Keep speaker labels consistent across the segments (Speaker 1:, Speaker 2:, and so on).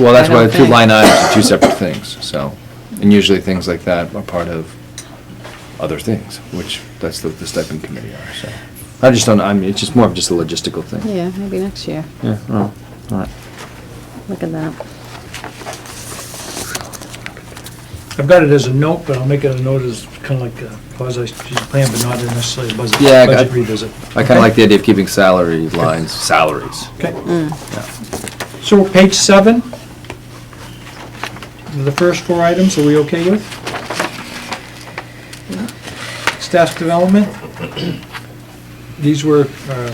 Speaker 1: Well, that's
Speaker 2: I don't
Speaker 1: why the two
Speaker 2: think.
Speaker 1: line items are two separate things, so, and usually things like that are part of other things, which, that's what the stipend committee are, so. I just don't, I mean, it's just more of just a logistical thing.
Speaker 2: Yeah, maybe next year.
Speaker 1: Yeah, well, all right.
Speaker 2: Look at that.
Speaker 3: I've got it as a note, but I'll make it a note as kind of like a quasi-strategic plan, but not necessarily a budget
Speaker 1: Yeah, I got-
Speaker 3: budget revisit.
Speaker 1: I kind of like the idea of keeping salary lines, salaries.
Speaker 3: Okay.
Speaker 4: Mm.
Speaker 3: So page seven, the first four items, are we okay with? Staff development, these were, uh,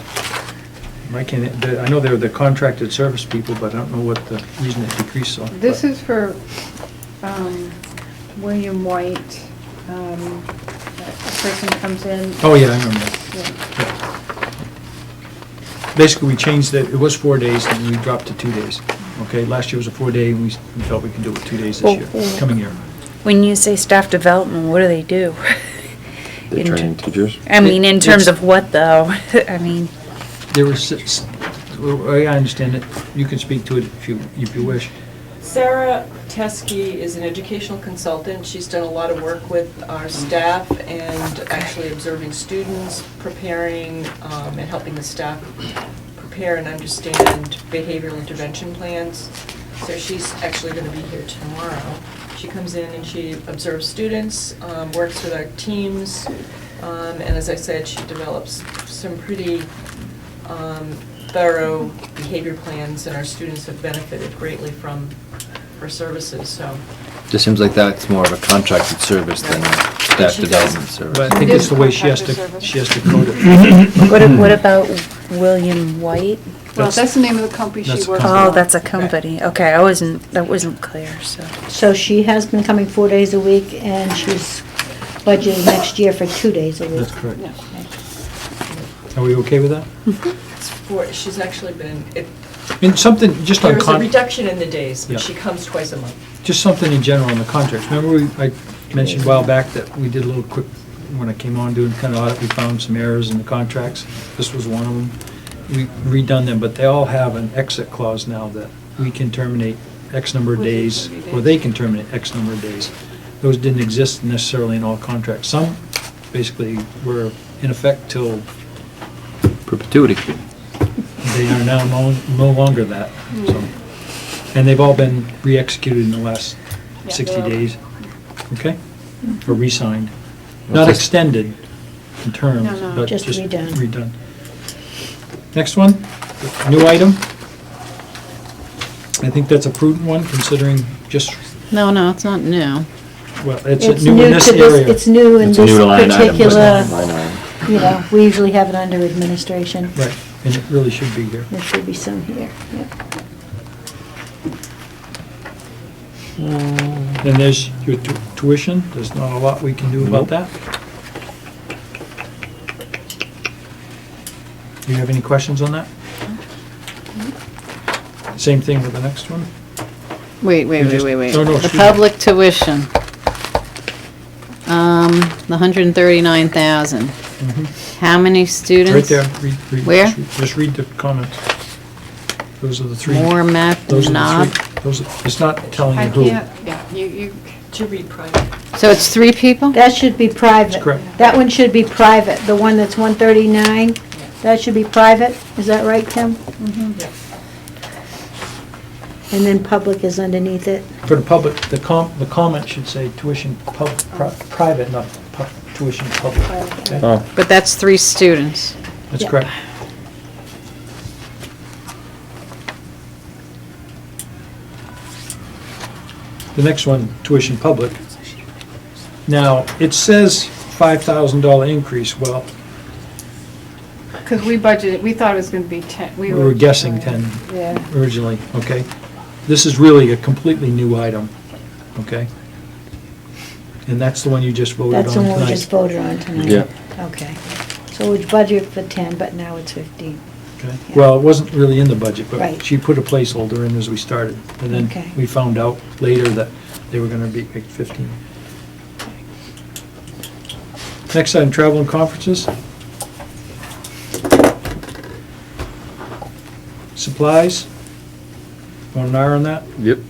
Speaker 3: I can't, I know they're the contracted service people, but I don't know what the reason it decreased on.
Speaker 5: This is for um, William White. um, A person comes in.
Speaker 3: Oh, yeah, I remember that.
Speaker 5: yeah,
Speaker 3: Basically, we changed it, it was four days, and we dropped to two days. Okay, last year was a four-day, and we s- we felt we could do it two days this year, coming year.
Speaker 4: When you say staff development, what do they do?
Speaker 1: They
Speaker 4: In ter-
Speaker 1: train teachers?
Speaker 4: I mean, in terms
Speaker 3: It's-
Speaker 4: of what, though? I mean,
Speaker 3: There were six, well, I understand it, you can speak to it if you, if you wish.
Speaker 6: Sarah Teskey is an educational consultant. She's done a lot of work with our staff and actually observing students, preparing um, and helping the staff prepare and understand behavioral intervention plans. So she's actually going to be here tomorrow. She comes in and she observes students, um, works with our teams, um, and as I said, she develops some pretty um, thorough behavior plans, and our students have benefited greatly from her services, so.
Speaker 1: Just seems like that's more of a contracted service than a staff
Speaker 6: She does.
Speaker 1: development
Speaker 3: But I
Speaker 1: service.
Speaker 3: think it's the way she has
Speaker 5: Contractor
Speaker 3: to,
Speaker 5: service.
Speaker 3: she has to code it.
Speaker 4: what, a- what about William White?
Speaker 5: Well,
Speaker 3: That's-
Speaker 5: that's the name of the company she
Speaker 3: that's
Speaker 5: works
Speaker 3: a
Speaker 5: for.
Speaker 3: company.
Speaker 4: Oh, that's a company. Okay, I wasn't, that wasn't clear, so.
Speaker 7: So she has been coming four days a week, and she's budgeting next year for two days a week.
Speaker 3: That's correct.
Speaker 5: Yeah.
Speaker 3: Are we okay with that?
Speaker 6: It's for, she's actually been, it-
Speaker 3: And something, just on,
Speaker 6: there's a
Speaker 3: con-
Speaker 6: reduction in the days,
Speaker 3: Yeah.
Speaker 6: but she comes twice a month.
Speaker 3: just something in general on the contracts. Remember, we- I mentioned a while back that we did a little quick, when I came on doing kind of audit, we found some errors in the contracts. This was one of them. We redone them, but they all have an exit clause now that we can terminate X number of
Speaker 5: Within
Speaker 3: days,
Speaker 5: 30
Speaker 3: or
Speaker 5: days.
Speaker 3: they can terminate X number of days. Those didn't exist necessarily in all contracts. Some basically were in effect till
Speaker 1: Perpetuity.
Speaker 3: they are now no, no longer that, so. And they've all been re-executed in the last
Speaker 5: Yeah.
Speaker 3: sixty
Speaker 5: They're-
Speaker 3: days, okay? Or re-signed, not extended in terms,
Speaker 5: No, no.
Speaker 3: but
Speaker 7: Just
Speaker 3: just
Speaker 7: redone.
Speaker 3: redone. Next one, new item. I think that's a prudent one, considering just,
Speaker 2: No, no, it's not new.
Speaker 3: well, it's
Speaker 7: It's
Speaker 3: new in this
Speaker 7: to
Speaker 3: area.
Speaker 7: It's new in
Speaker 1: It's a
Speaker 7: this
Speaker 1: new line item, but
Speaker 7: particular,
Speaker 1: not line item.
Speaker 7: you know, we usually have it under administration.
Speaker 3: Right, and it really should be here.
Speaker 7: There should be some here, yeah.
Speaker 3: And there's your tu- tuition, there's not a lot we can do about that. Do you have any questions on that?
Speaker 2: Mm-hmm.
Speaker 3: Same thing with the next one?
Speaker 2: Wait, wait,
Speaker 3: You
Speaker 2: wait,
Speaker 3: just-
Speaker 2: wait, wait.
Speaker 3: no, no,
Speaker 2: The
Speaker 3: excuse me.
Speaker 2: public tuition. Um, the hundred and thirty-nine thousand. How many students?
Speaker 3: Right there, read, read.
Speaker 2: Mm-hmm. Where?
Speaker 3: just read- Just read the comments. Those are the three.
Speaker 2: More math
Speaker 3: Those
Speaker 2: than
Speaker 3: are
Speaker 2: not.
Speaker 3: the three. Those, are- it's not telling
Speaker 5: I
Speaker 3: you who.
Speaker 5: can't, yeah, you, you,
Speaker 6: To read private.
Speaker 2: So it's three people?
Speaker 7: That should be private.
Speaker 3: That's correct.
Speaker 7: That one should be private, the one that's 139, that should be private, is that right, Tim?
Speaker 6: Yeah.
Speaker 7: And then public is underneath it.
Speaker 3: For the public, the com, the comment should say tuition pub, pri- private, not pub, tuition public. okay?
Speaker 1: Oh.
Speaker 2: But that's three students.
Speaker 3: That's
Speaker 7: Yeah.
Speaker 3: correct. The next one, tuition public. Now, it says $5,000 increase, well,
Speaker 5: because we budgeted, we thought it was going to be 10.
Speaker 3: we were guessing 10
Speaker 5: Yeah.
Speaker 3: originally, okay? This is really a completely new item, okay? And that's the one you just voted on
Speaker 7: That's the one we
Speaker 3: tonight.
Speaker 7: just voted on tonight.
Speaker 1: Yeah.
Speaker 7: Okay. So we budgeted for 10, but now it's 15.
Speaker 3: Okay.
Speaker 7: Yeah.
Speaker 3: Well, it wasn't really in the budget, but
Speaker 7: Right.
Speaker 3: she put a placeholder in as we started. And
Speaker 7: Okay.
Speaker 3: then we found out later that they were gonna be at 15. Next item, travel and conferences. Supplies.
Speaker 8: Want an hour on that?
Speaker 3: Yep.